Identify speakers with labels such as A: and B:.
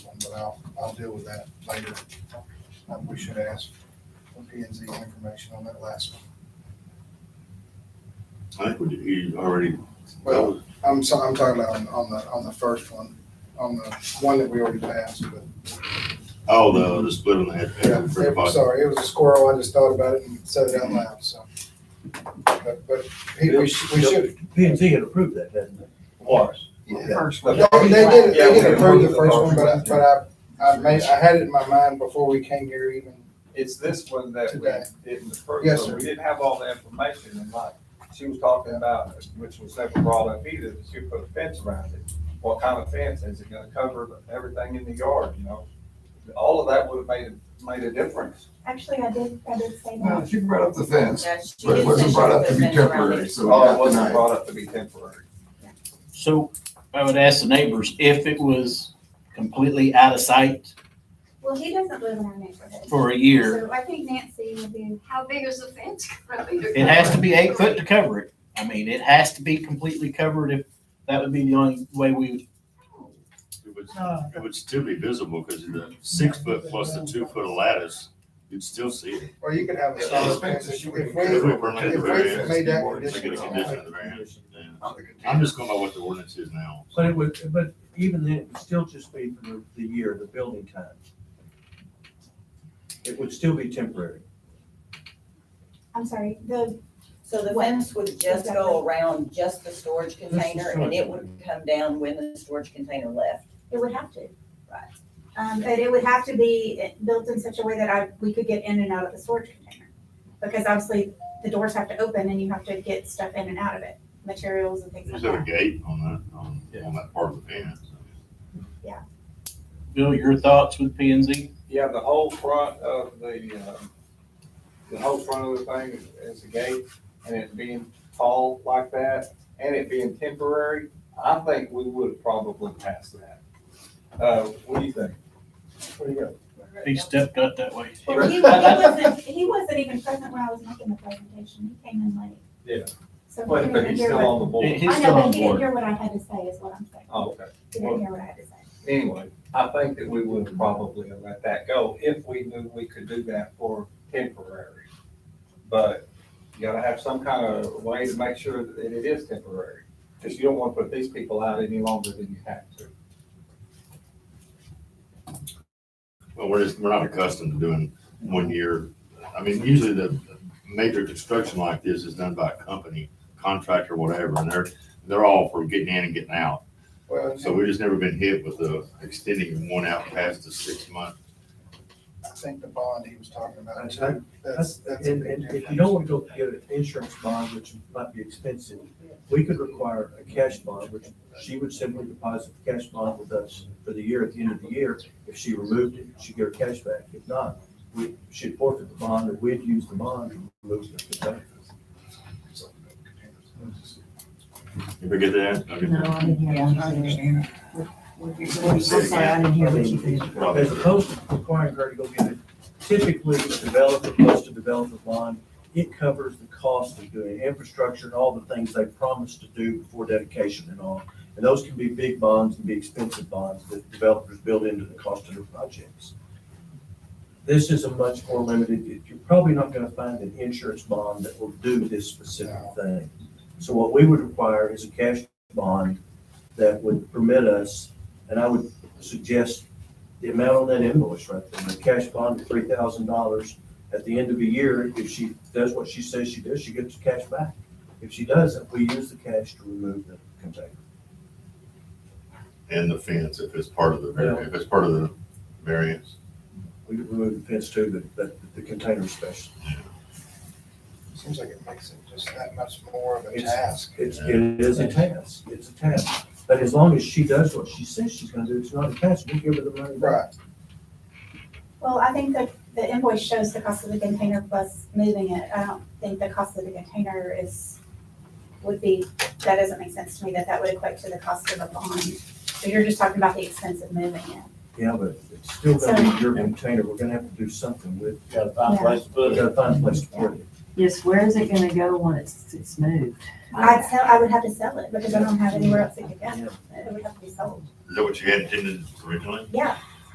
A: but I'll, I'll deal with that later. Uh, We should ask for P and Z information on that last one.
B: I think we did, he already, that
A: Well,
B: was,
A: I'm sorry, I'm talking about on- on the, on the first one, on the one that we already passed, but
B: oh, the, the split on the head.
A: Yeah, it- sorry, it was a squirrel, I just thought about it and said it out loud, so. But, but he- we should, we should,
C: P and Z had approved that, hadn't they? Was.
D: First.
A: they they did,
D: Yeah,
A: they
D: we
A: did approve the
D: approved
A: first one, but I, but I, I made, I had it in my mind before we came here even.
D: It's this one that
A: Today.
D: we didn't approve.
A: Yes,
D: so
A: sir.
D: We didn't have all the information and like, she was talking about, which was never brought up either, that she put a fence around it. What kind of fence? Is it gonna cover everything in the yard, you know? All of that would have made, made a difference.
E: Actually, I did, I did say
F: No,
B: Oh.
E: that.
F: Uh, she brought up the fence,
G: Yes, she
F: but it
G: did
F: wasn't
G: say
F: brought
G: she
F: up to
G: was
F: be
G: gonna run
F: temporary,
G: it.
F: so we
D: Oh, it
F: got
D: wasn't
F: denied.
D: brought up to be temporary.
H: So I would ask the neighbors if it was completely out of sight
E: Well, he doesn't live in our neighborhood.
H: for a year,
E: So I think Nancy would be,
G: How big is the fence?
H: it has to be eight foot to cover it. I mean, it has to be completely covered if, that would be the only way we would.
B: It would, it would still be visible because the six foot plus the two foot of lattice, you'd still see it.
A: Or you could have a
F: Yeah,
A: solid
F: the fence
A: fence,
F: that
A: if
F: she
A: we,
F: would-
A: if
B: If we
A: we
B: permit the
A: if we
B: variance,
A: made that
B: make it a
A: condition.
B: condition of the variance. yeah. I'm just going by what the ordinance is now.
C: But it would, but even then, it would still just be for the, the year, the building time. It would still be temporary.
E: I'm sorry, the,
G: So the fence would just go around just the storage container and it would come down when the storage container left.
E: it would have to.
G: Right.
E: Um, but it would have to be built in such a way that I, we could get in and out of the storage container. Because obviously, the doors have to open and you have to get stuff in and out of it, materials and things like
B: Is there a
E: that.
B: gate on that, on, on that part of the fence?
H: Bill, your thoughts with P and Z?
D: Yeah, the whole front of the, um, the whole front of the thing is- is a gate, and it being tall like that, and it being temporary, I think we would have probably passed that. Uh, what do you think? What do you got?
H: He stepped up that way.
E: Well, he, he wasn't, he wasn't even present when I was making the presentation, he came in late.
D: Yeah.
E: So
D: But,
E: he
D: but
E: didn't
D: he's
E: hear
D: still
E: what,
D: on the board.
H: He's
E: I
H: still
E: know,
H: on
E: but he didn't
H: board.
E: hear what I had to say is what I'm saying.
D: Oh, okay.
E: He didn't hear what I had to say.
D: Anyway, I think that we would have probably have let that go if we knew we could do that for temporary. But you gotta have some kind of way to make sure that it is temporary, because you don't want to put these people out any longer than you have to.
B: Well, we're just, we're not accustomed to doing one year. I mean, usually the major construction like this is done by a company, contractor, whatever, and they're, they're all for getting in and getting out.
A: Well,
B: So we've just never been hit with the extending one out past the six month.
A: I think the bond he was talking about,
C: That's
A: too.
C: right.
A: that's, that's. a
C: And,
A: big
C: and if you
A: difference.
C: don't want to go get an insurance bond, which might be expensive, we could require a cash bond, which she would simply deposit the cash bond with us for the year, at the end of the year. If she removed it, she'd get her cash back. If not, we, she'd forfeit the bond, or we'd use the bond and remove it.
B: You ever get that? I get
I: No,
B: that.
I: I didn't hear what you said. What you- what you said, I didn't hear what you said.
B: Probably.
C: As opposed to requiring her to go get it, typically the developer goes to develop a bond. It covers the cost of doing infrastructure and all the things they promised to do before dedication and all. And those can be big bonds and be expensive bonds that developers build into the cost of their projects. This is a much more limited, you're probably not gonna find an insurance bond that will do this specific thing. So what we would require is a cash bond that would permit us, and I would suggest the amount on that invoice right there, the cash bond of three thousand dollars. At the end of a year, if she does what she says she does, she gets the cash back. If she doesn't, we use the cash to remove the container.
B: And the fence, if it's part of the, var- if it's part of the variance.
C: We could remove the fence too, but, but the container special.
A: Seems like it makes it just that much more of a
C: It's-
A: task.
C: It's, it is a task, it's a task. But as long as she does what she says she's gonna do, it's not a task, we give her the money back.
A: Right,
E: Well, I think that the invoice shows the cost of the container plus moving it. I don't think the cost of the container is, would be, that doesn't make sense to me, that that would equate to the cost of a bond. So you're just talking about the expense of moving it.
C: Yeah, but it's still gonna be your container, we're gonna have to do something with, it.
H: Got a
E: fine place
H: to
C: we gotta find a place to put it.
I: Yes, where is it gonna go when it's, it's moved?
E: I'd sell, I would have to sell it because I don't have anywhere else to get it.
C: Yeah.
E: It would have to be sold.
B: Is that what you had intended originally?
E: Yeah,